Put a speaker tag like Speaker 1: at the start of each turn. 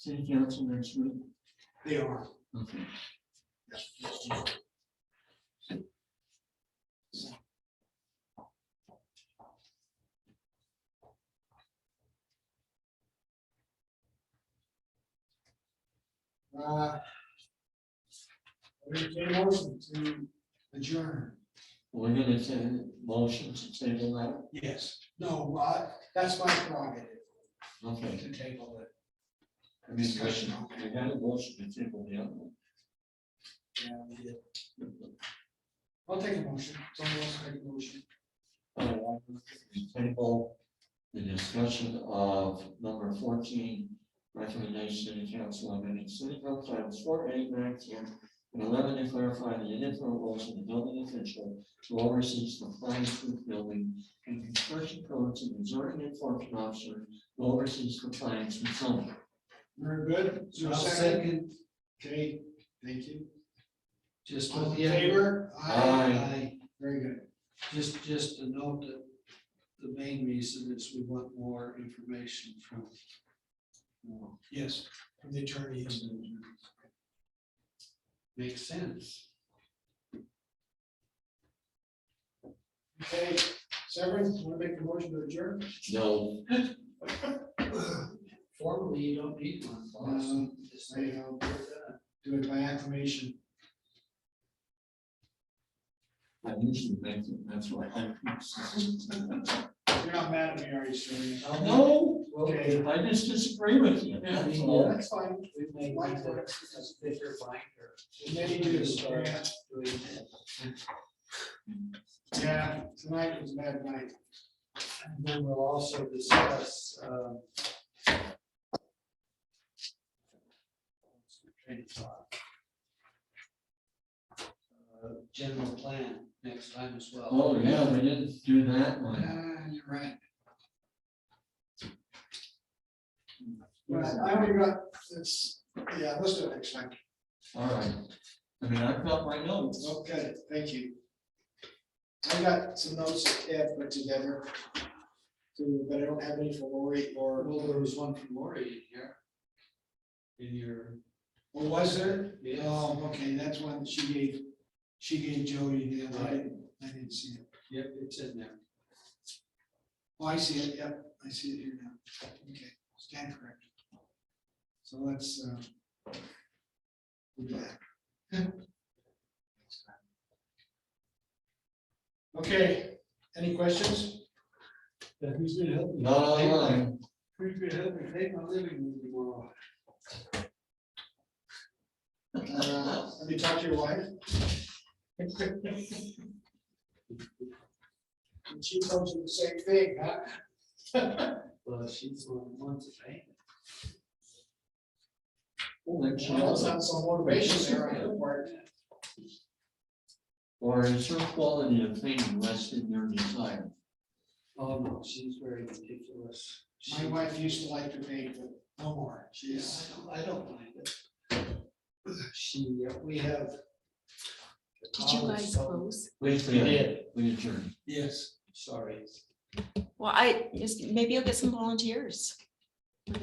Speaker 1: city council next week?
Speaker 2: They are.
Speaker 1: Okay.
Speaker 2: Uh, Entertain a motion to adjourn.
Speaker 1: We're gonna send motion to table that,
Speaker 2: Yes. No, uh, that's my prerogative
Speaker 1: okay.
Speaker 2: to table it.
Speaker 1: I mean, we we had a motion to table the other one.
Speaker 2: Yeah, we did. I'll take a motion. Someone else make a motion.
Speaker 1: Uh, we Table the discussion of number fourteen, recommendation to the council on amending city code titles four, eight, nine, ten, and eleven to clarify the individual roles of the building official to oversee the planning proof building and construction codes and the zoning enforcement officer who oversees compliance with zoning.
Speaker 2: Very good. Is there a
Speaker 3: I'll
Speaker 2: second? Okay, thank you.
Speaker 3: Just,
Speaker 2: All in
Speaker 3: yeah,
Speaker 2: favor?
Speaker 1: Aye.
Speaker 3: I,
Speaker 2: Very good.
Speaker 3: just, just to note that the main reason is we want more information from. uh,
Speaker 2: Yes, from the attorney. yes.
Speaker 3: Makes sense.
Speaker 2: Okay, Severin, want to make a motion to adjourn?
Speaker 1: No,
Speaker 3: Formally, you don't need one.
Speaker 2: Um,
Speaker 3: boss. Just
Speaker 2: Say, I'll do it by acclamation.
Speaker 1: I usually make it, that's why. I-
Speaker 2: You're not mad at me, are you, Severin?
Speaker 1: No,
Speaker 2: Okay.
Speaker 1: I just disagree with you.
Speaker 3: Yeah, I
Speaker 1: that's
Speaker 3: mean,
Speaker 1: all.
Speaker 2: That's fine.
Speaker 3: We may
Speaker 2: Like
Speaker 3: need
Speaker 2: that.
Speaker 3: a thicker binder.
Speaker 2: Maybe you do.
Speaker 3: Start
Speaker 2: Yeah.
Speaker 3: doing that.
Speaker 2: Yeah, tonight was a bad night.
Speaker 3: And then we'll also discuss, um. train of thought. Uh, General plan next time as well.
Speaker 1: Oh, yeah, we didn't do that one.
Speaker 2: Ah, you're right. But I only got, it's, yeah, let's do it next time.
Speaker 1: All right. I mean, I've got my notes.
Speaker 2: Okay, thank you. I got some notes that Ted put together. too, But I don't have any for Lori or,
Speaker 3: Well, there was one from Lori in here. In your.
Speaker 2: or Oh, was there?
Speaker 3: Yeah.
Speaker 2: Oh, okay, that's one that she gave, she gave Jody the other day. I didn't see it.
Speaker 3: Yep, it's in there.
Speaker 2: Oh, I see it, yep, I see it here now. Okay, stand corrected. So let's, uh. we'll do that. Okay, any questions?
Speaker 3: who's gonna help
Speaker 1: Not online.
Speaker 3: Who's gonna help me pay my living room tomorrow?
Speaker 2: Uh, Have you talked to your wife? And she told you the same thing, huh?
Speaker 3: Well, she's the one who wants to pay.
Speaker 1: Holy
Speaker 2: Well, it's
Speaker 1: cow.
Speaker 2: not so motivational there on her part.
Speaker 1: Or is your quality of thinking less than your desire?
Speaker 3: Oh, no, she's very ridiculous.
Speaker 2: My
Speaker 3: She-
Speaker 2: wife used to like to paint, but no more.
Speaker 3: Yeah,
Speaker 2: She's,
Speaker 3: I don't, I don't mind it. She, uh, we have.
Speaker 4: Did you guys
Speaker 3: Oh, so-
Speaker 4: close?
Speaker 1: We
Speaker 3: did.
Speaker 1: We adjourned.
Speaker 3: Yes, sorry.
Speaker 4: Well, I, yes, maybe you'll get some volunteers.